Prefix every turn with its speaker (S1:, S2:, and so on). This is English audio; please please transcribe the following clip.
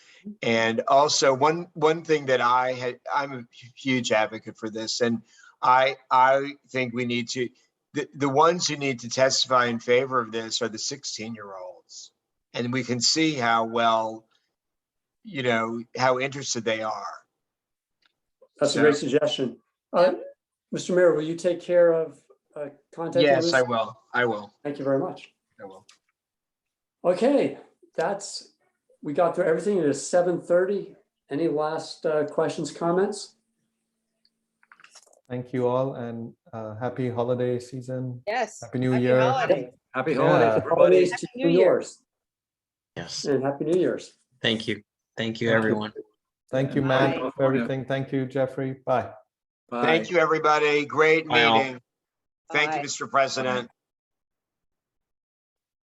S1: And also one, one thing that I had, I'm a huge advocate for this and I, I think we need to, the, the ones who need to testify in favor of this are the sixteen year olds. And we can see how well, you know, how interested they are.
S2: That's a
S1: So-
S2: great suggestion. Uh, Mr. Mayor, will you take care of uh, contacting?
S1: Yes,
S2: Liz?
S1: I will. I will.
S2: Thank you very much.
S1: I will.
S2: Okay, that's, we got through everything. It is seven thirty. Any last uh, questions, comments?
S3: Thank you all and uh, happy holiday season.
S4: Yes.
S3: Happy New
S4: Happy
S3: Year.
S4: holidays.
S5: Happy
S3: Yeah.
S5: holidays, everybody.
S2: Holidays to
S4: Happy New
S2: you
S4: Year.
S2: yours,
S6: Yes,
S2: and happy New Year's.
S6: thank you. Thank you,
S3: Thank you.
S6: everyone.
S3: Thank you,
S4: Bye.
S3: Matt, for
S5: California.
S3: everything. Thank you, Jeffrey. Bye.
S5: Bye.
S1: Thank you, everybody. Great
S6: Bye all.
S1: meeting. Thank you,
S4: Bye.
S1: Mr. President.